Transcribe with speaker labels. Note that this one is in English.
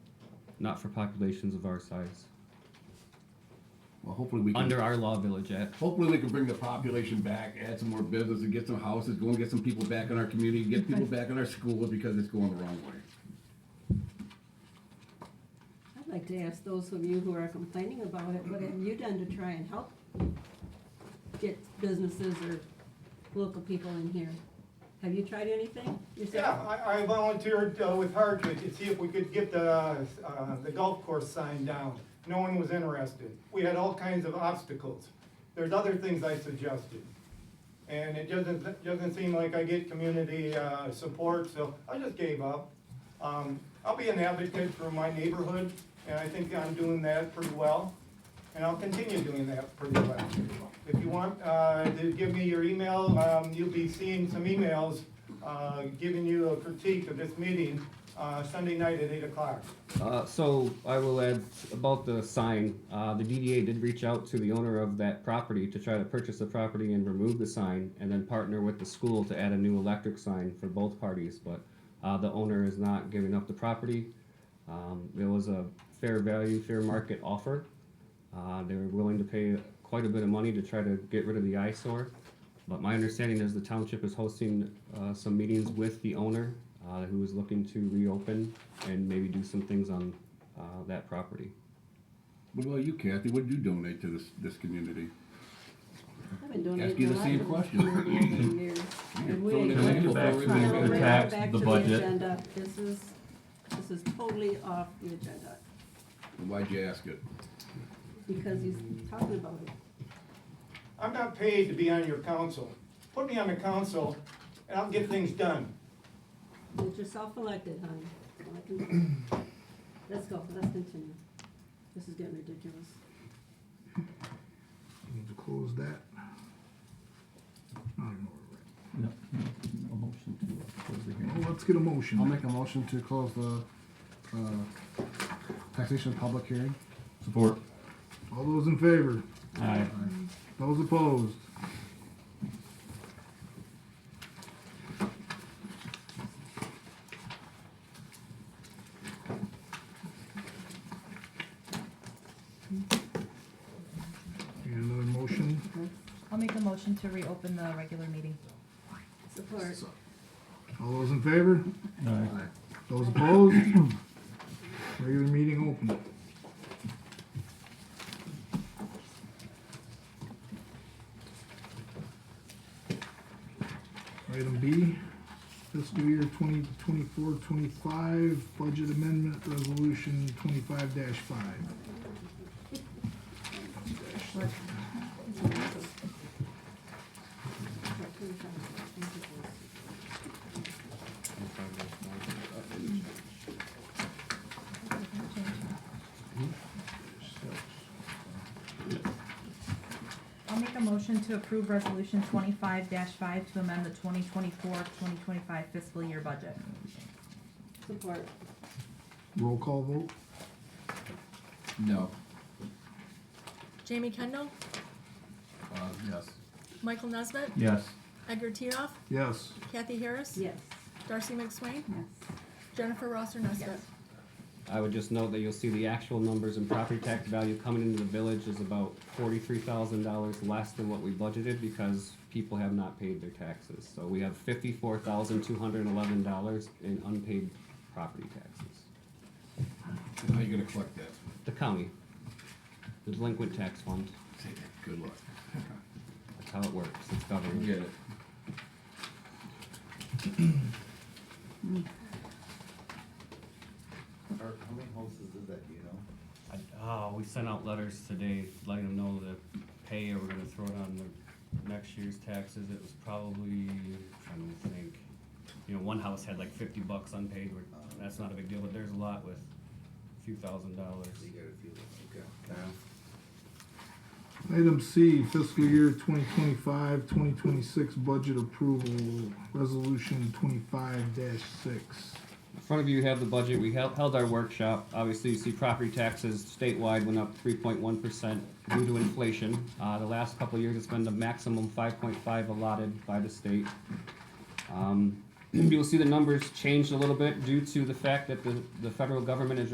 Speaker 1: not for populations of our size.
Speaker 2: Well, hopefully we can.
Speaker 1: Under our law village at.
Speaker 2: Hopefully we can bring the population back, add some more business and get some houses, go and get some people back in our community, get people back in our schools because it's going the wrong way.
Speaker 3: I'd like to ask those of you who are complaining about it, what have you done to try and help get businesses or local people in here? Have you tried anything
Speaker 4: Yeah,
Speaker 3: yourself?
Speaker 4: I, I volunteered uh, with Hardwick to see if we could get the, uh, the golf course sign down. No one was interested. We had all kinds of obstacles. There's other things I suggested. And it doesn't, doesn't seem like I get community, uh, support, so I just gave up. Um, I'll be an advocate for my neighborhood, and I think I'm doing that pretty well. And I'll continue doing that pretty well. If you want, uh, to give me your email, um, you'll be seeing some emails, uh, giving you a critique of this meeting, uh, Sunday night at eight o'clock.
Speaker 1: Uh, so I will add about the sign. Uh, the DDA did reach out to the owner of that property to try to purchase the property and remove the sign, and then partner with the school to add a new electric sign for both parties. But uh, the owner is not giving up the property. Um, there was a fair value, fair market offer. Uh, they were willing to pay quite a bit of money to try to get rid of the eyesore. But my understanding is the township is hosting uh, some meetings with the owner, uh, who is looking to reopen and maybe do some things on uh, that property.
Speaker 2: What about you, Kathy? What do you donate to this, this community?
Speaker 3: I've been donating
Speaker 2: Ask you the
Speaker 3: a lot
Speaker 2: same
Speaker 3: to this
Speaker 2: question.
Speaker 3: community over the years. And we
Speaker 2: Throw it
Speaker 3: ain't
Speaker 2: in
Speaker 3: going
Speaker 2: the
Speaker 3: to-
Speaker 2: back.
Speaker 3: Now, we're
Speaker 5: The
Speaker 3: going
Speaker 5: tax,
Speaker 3: back
Speaker 5: the
Speaker 3: to
Speaker 5: budget.
Speaker 3: agenda. This is, this is totally off the agenda,
Speaker 2: Why'd you ask it?
Speaker 3: because he's talking about it.
Speaker 4: I'm not paid to be on your council. Put me on the council, and I'll get things done.
Speaker 3: Get yourself elected, honey. That's all I can do. Let's go, let's continue. This is getting ridiculous.
Speaker 6: Need to close that. I don't know where
Speaker 5: No, a motion to close the
Speaker 6: we're at.
Speaker 5: hearing.
Speaker 6: Well, let's get a motion.
Speaker 7: I'll make a motion to close the, uh, taxation public hearing.
Speaker 5: Support.
Speaker 6: All those in favor?
Speaker 5: Aye.
Speaker 6: Those opposed? Need another motion?
Speaker 8: I'll make a motion to reopen the regular meeting.
Speaker 3: Support.
Speaker 6: All those in favor?
Speaker 5: Aye.
Speaker 6: Those opposed? Regular meeting open. Item B, fiscal year 2024-25 budget amendment resolution twenty-five five.
Speaker 8: I'll make a motion to approve resolution twenty-five five to amend the 2024-2025 fiscal year budget.
Speaker 3: Support.
Speaker 6: Roll call vote?
Speaker 2: No.
Speaker 9: Jamie Kendall,
Speaker 2: Uh, yes.
Speaker 9: Michael Nesbitt,
Speaker 5: Yes.
Speaker 9: Edgar Tiroff,
Speaker 6: Yes.
Speaker 9: Kathy Harris,
Speaker 3: Yes.
Speaker 9: Darcy McSwain, Jennifer Rosser Nesbitt.
Speaker 1: I would just note that you'll see the actual numbers and property tax value coming into the village is about forty-three thousand dollars less than what we budgeted because people have not paid their taxes. So we have fifty-four thousand two hundred and eleven dollars in unpaid property taxes.
Speaker 2: And how you gonna collect that?
Speaker 1: The county, the delinquent tax fund,
Speaker 2: Say that. Good luck.
Speaker 1: that's how it works, it's government.
Speaker 2: Get it.
Speaker 10: Or how many houses is that, do you know?
Speaker 1: I- Oh, we sent out letters today letting them know to pay or we're gonna throw it on their next year's taxes. It was probably, I'm trying to think. You know, one house had like fifty bucks unpaid, where, that's not a big deal, but there's a lot with a few thousand dollars.
Speaker 10: You got a few, okay.
Speaker 6: Item C, fiscal year 2025-2026 budget approval, resolution twenty-five six.
Speaker 1: In front of you have the budget. We held, held our workshop. Obviously, you see property taxes statewide went up three point one percent due to inflation. Uh, the last couple of years, it's been the maximum five point five allotted by the state. Um, you'll see the numbers changed a little bit due to the fact that the, the federal government is